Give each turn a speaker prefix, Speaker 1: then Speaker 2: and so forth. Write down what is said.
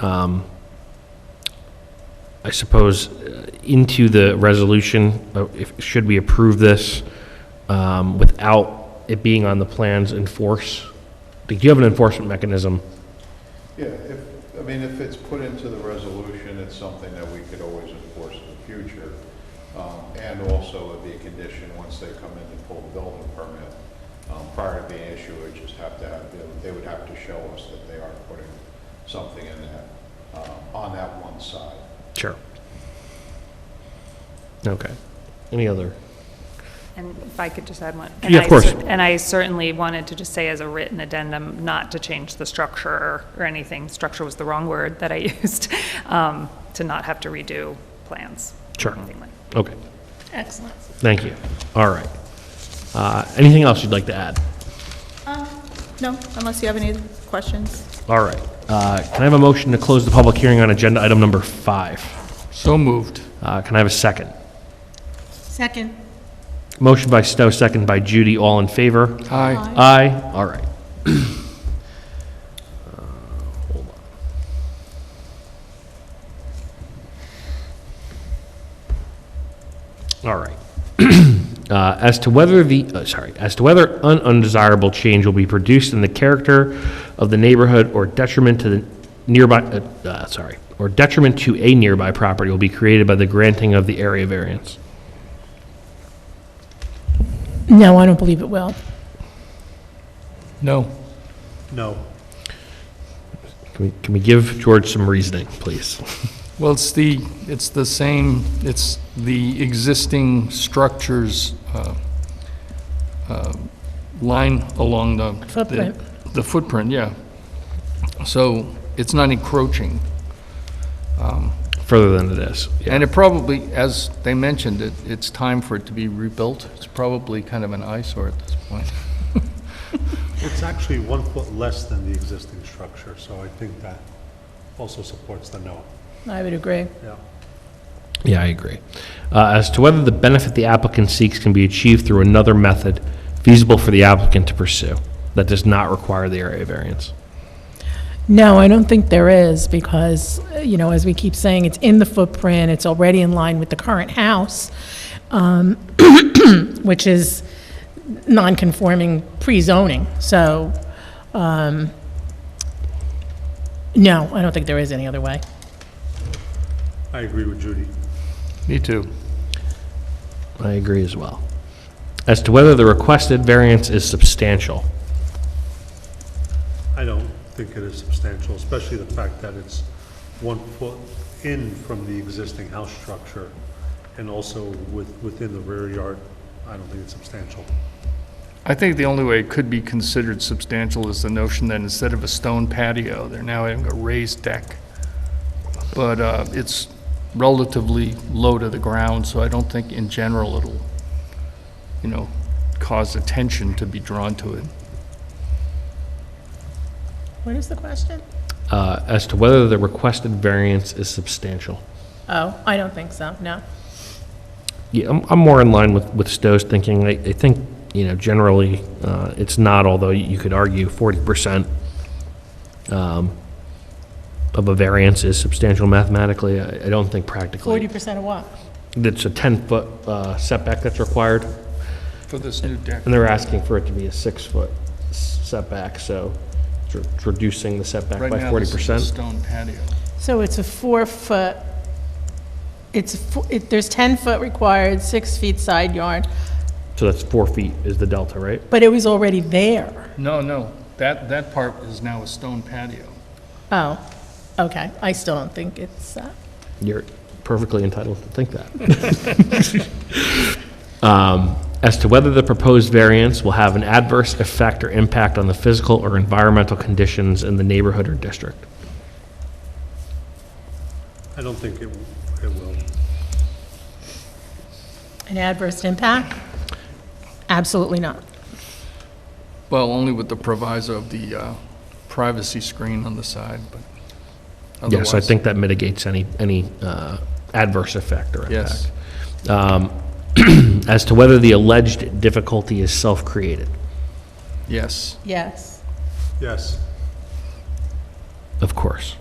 Speaker 1: um, I suppose, uh, into the resolution, uh, if, should we approve this um, without it being on the plans in force? Do you have an enforcement mechanism?
Speaker 2: Yeah, if, I mean, if it's put into the resolution, it's something that we could always enforce in the future. Um, And also it'd be a condition, once they come in and pull the building permit, um, prior to being issued, it just have to have, they would- they would have to show us that they are putting something in that, um, on that one side.
Speaker 1: Sure. Okay. Any other?
Speaker 3: And if I could just add one.
Speaker 1: Yeah, of
Speaker 3: And I
Speaker 1: course.
Speaker 3: cer- And I certainly wanted to just say as a written addendum, not to change the structure or- or anything. Structure was the wrong word that I used, um, to not have to redo plans. or
Speaker 1: Sure.
Speaker 3: anything like-
Speaker 1: Okay,
Speaker 4: Excellent.
Speaker 1: thank you. All right. Uh, Anything else you'd like to add?
Speaker 4: Um, No, unless you have any questions.
Speaker 1: All right. Uh, Can I have a motion to close the public hearing on agenda item number five?
Speaker 5: So moved.
Speaker 1: Uh, Can I have a second?
Speaker 4: Second.
Speaker 1: Motion by Stowe, second by Judy, all in favor?
Speaker 5: Aye.
Speaker 4: Aye.
Speaker 1: Aye, all right. Uh, hold on. All right. Uh, As to whether the, uh, sorry, as to whether an undesirable change will be produced in the character of the neighborhood or detriment to the nearby, uh, uh, sorry, or detriment to a nearby property will be created by the granting of the area variance.
Speaker 6: No, I don't believe it will.
Speaker 5: No.
Speaker 1: Can we, can we give George some reasoning, please?
Speaker 5: Well, it's the, it's the same, it's the existing structures, uh, uh, line along the. the-
Speaker 6: Footprint.
Speaker 5: The footprint, yeah. So it's not encroaching.
Speaker 1: Further than it is.
Speaker 5: And it probably, as they mentioned, it, it's time for it to be rebuilt. It's probably kind of an eyesore at this point.
Speaker 7: It's actually one foot less than the existing structure, so I think that also supports the no.
Speaker 6: I would agree.
Speaker 7: Yeah.
Speaker 1: Yeah, I agree. Uh, As to whether the benefit the applicant seeks can be achieved through another method feasible for the applicant to pursue that does not require the area variance.
Speaker 6: No, I don't think there is, because, uh, you know, as we keep saying, it's in the footprint, it's already in line with the current house, um, which is non-conforming pre-zoning, so, um, no, I don't think there is any other way.
Speaker 7: I agree with Judy.
Speaker 5: Me too.
Speaker 1: I agree as well. As to whether the requested variance is substantial.
Speaker 7: I don't think it is substantial, especially the fact that it's one foot in from the existing house structure and also with, within the rear yard. I don't think it's substantial.
Speaker 5: I think the only way it could be considered substantial is the notion that instead of a stone patio, they're now having a raised deck. But uh, it's relatively low to the ground, so I don't think in general it'll, you know, cause attention to be drawn to it.
Speaker 6: What is the question?
Speaker 1: Uh, As to whether the requested variance is substantial.
Speaker 6: Oh, I don't think so, no.
Speaker 1: Yeah, I'm, I'm more in line with, with Stowe's thinking. I, I think, you know, generally, uh, it's not, although you could argue forty percent, um, of a variance is substantial mathematically. I, I don't think
Speaker 6: Forty
Speaker 1: practically.
Speaker 6: percent of what?
Speaker 1: It's a ten-foot, uh, setback that's required,
Speaker 5: For this new deck.
Speaker 1: and they're asking for it to be a six-foot setback, so it's re- it's reducing the setback
Speaker 5: Right
Speaker 1: by
Speaker 5: now,
Speaker 1: forty
Speaker 5: this is a
Speaker 1: percent.
Speaker 5: stone patio.
Speaker 6: So it's a four-foot, it's, a fo- it- there's 10-foot required, six feet side yard,
Speaker 1: So that's four feet is the delta, right?
Speaker 6: but it was already there.
Speaker 5: No, no, that, that part is now a stone patio.
Speaker 6: Oh, okay, I still don't think it's, uh,
Speaker 1: You're perfectly entitled to think that. Um, As to whether the proposed variance will have an adverse effect or impact on the physical or environmental conditions in the neighborhood or district.
Speaker 7: I don't think it, it will.
Speaker 6: an adverse impact? Absolutely not.
Speaker 5: Well, only with the proviso of the uh, privacy screen on the side, but otherwise.
Speaker 1: Yes, I think that mitigates any, any uh, adverse effect or
Speaker 5: Yes.
Speaker 1: impact. Um, As to whether the alleged difficulty is self-created.
Speaker 5: Yes.
Speaker 6: Yes.
Speaker 7: Yes.
Speaker 1: Of course.